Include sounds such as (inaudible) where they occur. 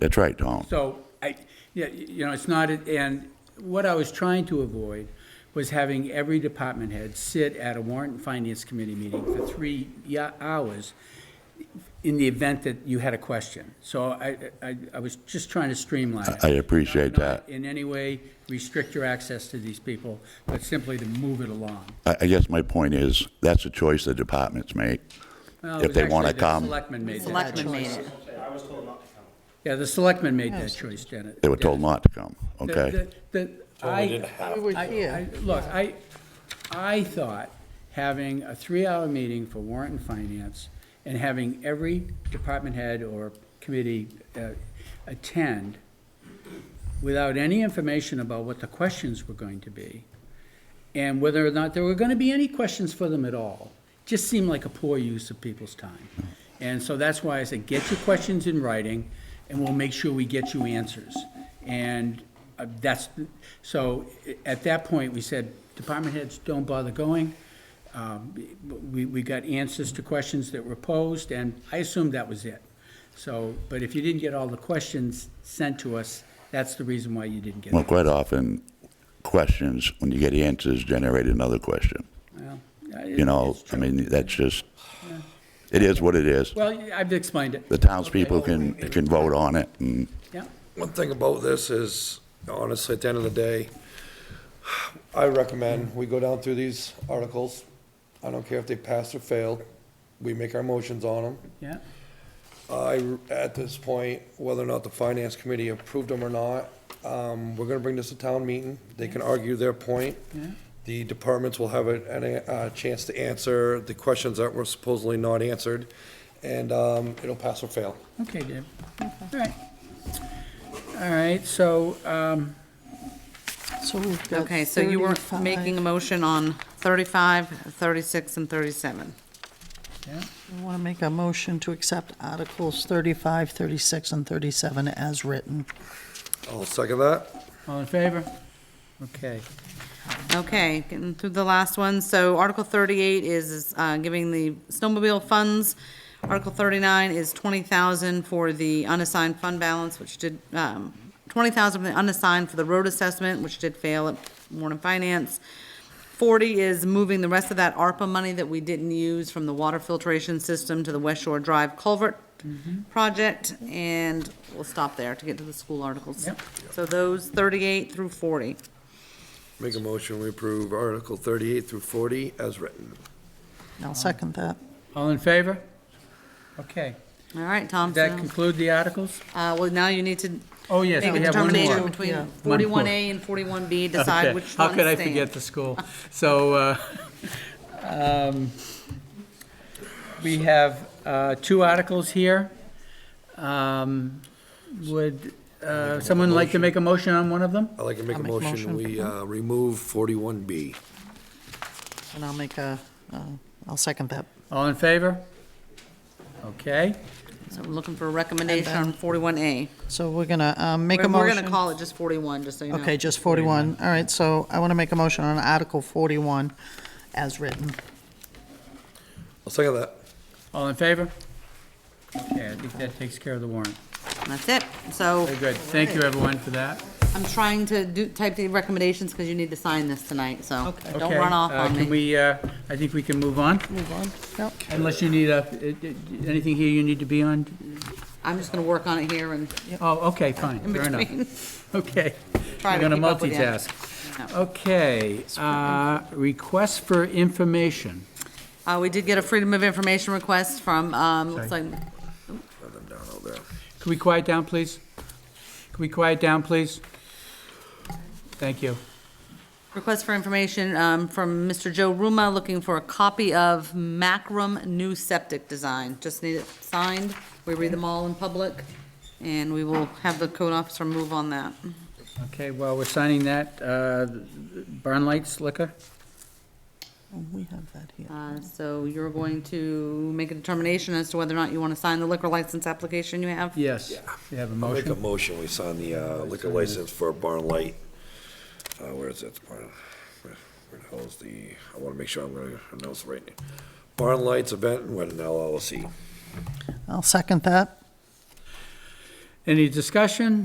That's right, Tom. So, I, yeah, you know, it's not, and what I was trying to avoid was having every department head sit at a warrant and finance committee meeting for three ya- hours in the event that you had a question. So I, I, I was just trying to streamline it. I appreciate Not- not that. In any way restrict your access to these people, but simply to move it along. I, I guess my point is, that's a choice the departments make. Well, it If was they wanna actually the come. Selectmen made that Selectmen choice. made it. Yeah, the selectmen made that choice, Janet. They were told not to come, The- okay? the- the- I, We were I- here. I- Look, I, I thought having a three-hour meeting for warrant and finance and having every department head or committee uh, attend without any information about what the questions were going to be and whether or not there were going to be any questions for them at all, just seemed like a poor use of people's time. And so that's why I said, get your questions in writing, and we'll make sure we get you answers. And uh, that's, so at that point, we said, department heads, don't bother going. Um, We, we got answers to questions that were posed, and I assumed that was it. So, but if you didn't get all the questions sent to us, that's the reason why you didn't get Well, it. quite often, questions, when you get answers, generate another question. Well, You know, it's I true. mean, that's just, it is what it is. Well, I've explained it. The townspeople can, can vote on it, and Yeah, One thing about this is, honestly, at the end of the day, I recommend we go down through these articles. I don't care if they passed or failed. We make our motions on them. yeah, I, at this point, whether or not the finance committee approved them or not, um, we're gonna bring this to town meeting. They can argue their point. Yeah. The departments will have a, a, uh chance to answer the questions that were supposedly not answered, and, um, it'll pass or fail. okay, Deb. All right. All right, so, um, So we've got Okay, so you were making a motion on 35, 36, and 37. yeah, I want to make a motion to accept Articles 35, 36, and 37 as written. I'll second that. all in favor? Okay, Okay, getting through the last one. So Article 38 is uh, giving the snowmobile funds. Article 39 is 20,000 for the unassigned fund balance, which did, um, 20,000 for the unassigned for the road assessment, which did fail at Warren Finance. 40 is moving the rest of that ARPA money that we didn't use from the water filtration system to the West Shore Drive culvert Mm-hmm. project. And we'll stop there to get to the school articles. Yep. So those 38 through 40. Make a motion, we approve Article thirty-eight through forty as written. I'll second that. all in favor? Okay, All right, Does Tom, that so, conclude the articles? uh, well, now you need to Oh, yes, make we a have one determination more. Yeah. between One more. forty-one A and forty-one B, Okay, decide which How one could I forget stands. the school? So, uh, (laughs) um, we have uh, two articles here. Um, Would uh, someone like to make a motion on one of them? I'd like to make a I'll make a motion, motion. we uh, remove forty-one B. And I'll make a, uh, I'll second that. All in favor? Okay, So I'm looking for a recommendation on forty-one A. So we're going to make a We're motion. gonna call it just forty-one, just so you know. Okay, just 41. All right, so I want to make a motion on Article 41 as written. I'll second that. all in favor? Okay, I think that takes care of the warrant. That's it. So Very good. Thank you, everyone, for that. I'm trying to do, type the recommendations, because you need to sign this tonight, so don't Okay, run off uh, on Can me. we, uh, I think we can move on, Move on. Yep. unless you need a, uh, anything here you need to be on? I'm just gonna work on it here and Oh, okay, fine, in fair enough. between. (laughs) Okay. Try to We're keep gonna up with you. multitask. No. Okay, uh, request for information. Uh, we did get a freedom of information request from, um, looks like, Sorry. Can we quiet down, please? Can we quiet down, please? Thank you. Request for information um, from Mr. Joe Ruma, looking for a copy of Macrum New Septic Design. Just need it signed. We read them all in public, and we will have the code officer move on that. Okay, while we're signing that, uh, Barn Lights Liquor? Oh, We have that here. Uh, So you're going to make a determination as to whether or not you want to sign the liquor license application you have? Yes. You have a I'll make a motion? motion, we sign the uh, liquor license for Barn Light. Uh, Where is it? Barn- Where where the hell is the, I want to make sure I'm going to announce the right name. Barn Lights Event and Wedding LLC. I'll second that. Any discussion?